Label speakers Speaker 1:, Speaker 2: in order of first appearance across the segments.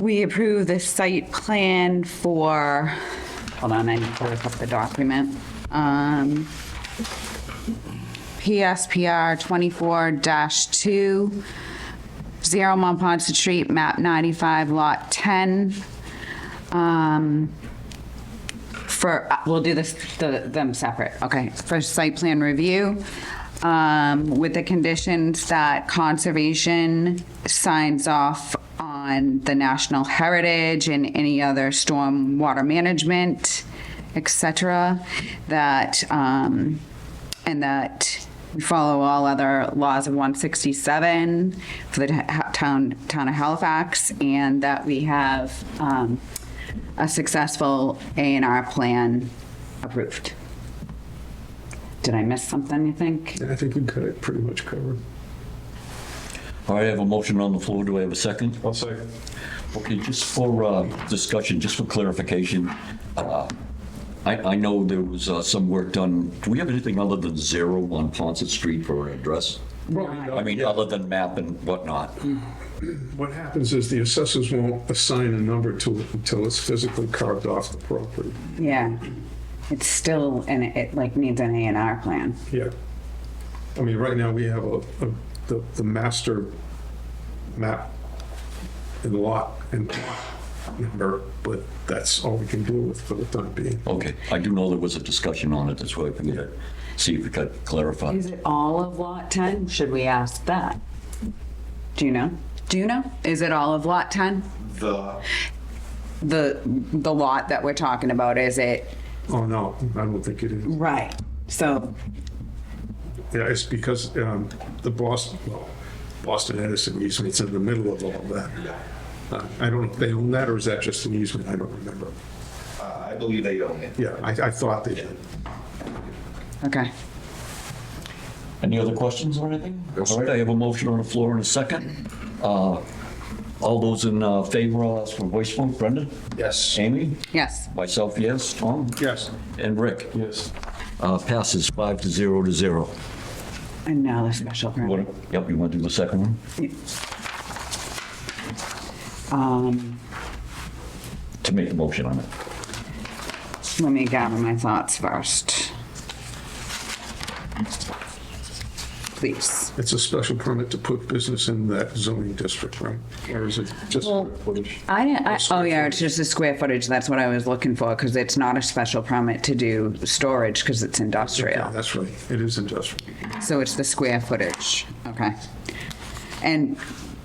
Speaker 1: we approve the site plan for, hold on, I need to look up the document. Um, PSPR 24-2, 0 Montponton Street, map 95, lot 10. Um, For, uh, we'll do this, the- them separate, okay, for site plan review, um, with the conditions that conservation signs off on the national heritage and any other stormwater management, et cetera, that, um, and that we follow all other laws of 167 for the ta- town, town of Halifax, and that we have um, a successful A&R plan approved. Did I miss something, you think?
Speaker 2: I think we got it pretty much covered.
Speaker 3: All right, I have a motion on the floor. Do I have a second?
Speaker 2: I'll second.
Speaker 3: Okay, just for uh, discussion, just for clarification, uh, I I know there was uh, some work done. Do we have anything other than zero on Ponset Street for an address? I mean, other than map and whatnot?
Speaker 2: What happens is the assessors won't assign a number to it until it's physically carved off the property.
Speaker 1: Yeah. It's still, and it like needs an A&R plan.
Speaker 2: Yeah. I mean, right now, we have a, a- the, the master map and lot and lot number, but that's all we can do with for the time being.
Speaker 3: Okay, I do know there was a discussion on it. That's why I figured I'd see if we could clarify.
Speaker 1: Is it all of Lot 10? Should we ask that? Do you know? Do you know? Is it all of Lot 10?
Speaker 4: The,
Speaker 1: The, the lot that we're talking about, is it?
Speaker 2: Oh, no, I don't think it is.
Speaker 1: Right. So
Speaker 2: Yeah, it's because um, the Boston, well, Boston Edison easement, it's in the middle of all that. Uh, I don't know if they own that, or is that just an easement? I don't remember.
Speaker 4: uh, I believe they own it.
Speaker 2: Yeah, I, I thought they did.
Speaker 1: Okay.
Speaker 3: Any other questions or anything? All right, I have a motion on the floor in a second. Uh, All those in uh, favor, I'll ask for a voice vote. Brendan?
Speaker 4: Yes.
Speaker 3: Amy?
Speaker 1: Yes.
Speaker 3: Myself, yes. Tom?
Speaker 2: Yes.
Speaker 3: And Rick?
Speaker 2: Yes.
Speaker 3: Uh, Passes five to zero to zero.
Speaker 1: And now the special permit.
Speaker 3: What- Yep, you want to do the second one?
Speaker 1: Um,
Speaker 3: To make the motion on it.
Speaker 1: let me gather my thoughts first. Please.
Speaker 2: It's a special permit to put business in that zoning district, right? Or is it just
Speaker 1: Well,
Speaker 2: footage?
Speaker 1: I, didn't- I, oh
Speaker 2: square
Speaker 1: yeah, it's just the square footage, that's what I was looking for, because it's not a special permit to do storage, because it's
Speaker 2: Yeah,
Speaker 1: industrial.
Speaker 2: that's right. It is industrial.
Speaker 1: So it's the square footage, okay. And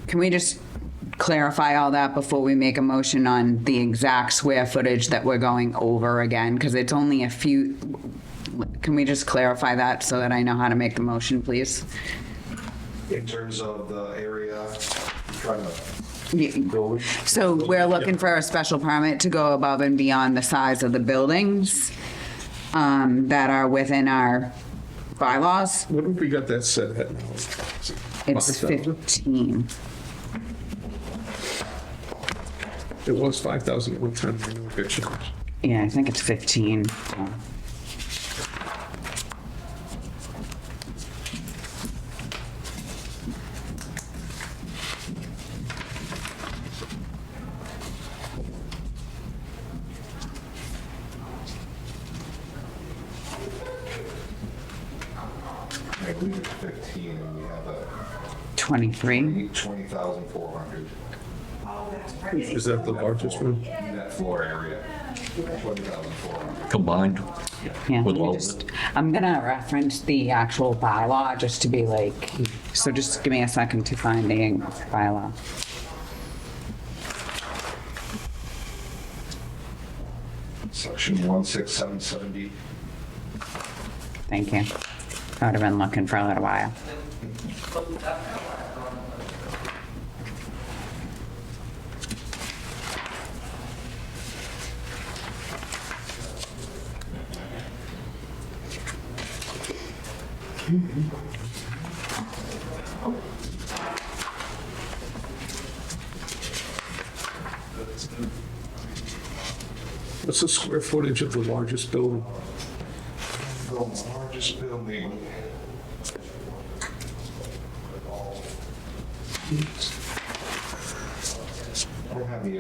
Speaker 1: can we just clarify all that before we make a motion on the exact square footage that we're going over again? Because it's only a few, can we just clarify that so that I know how to make the motion, please?
Speaker 4: In terms of the area, I'm trying to
Speaker 1: Ye-
Speaker 4: go with.
Speaker 1: So we're looking for a special permit to go above and beyond the size of the buildings um, that are within our bylaws.
Speaker 2: What have we got that set at now?
Speaker 1: It's
Speaker 2: 5,000?
Speaker 1: 15.
Speaker 2: It was 5,000 at one time. I know it got changed.
Speaker 1: Yeah, I think it's 15.
Speaker 4: I believe it's 15 and we have a
Speaker 1: 23.
Speaker 4: 20,400
Speaker 2: Is that the largest one?
Speaker 4: net floor area. 20,400.
Speaker 3: Combined?
Speaker 1: Yeah. let
Speaker 3: With
Speaker 1: me
Speaker 3: all of
Speaker 1: just- I'm gonna reference the actual bylaw just to be like, so just give me a second to find the bylaw.
Speaker 4: Section 16770.
Speaker 1: Thank you. I would have been looking for a little while.
Speaker 2: What's the square footage of the largest building?
Speaker 4: The largest building. I don't have the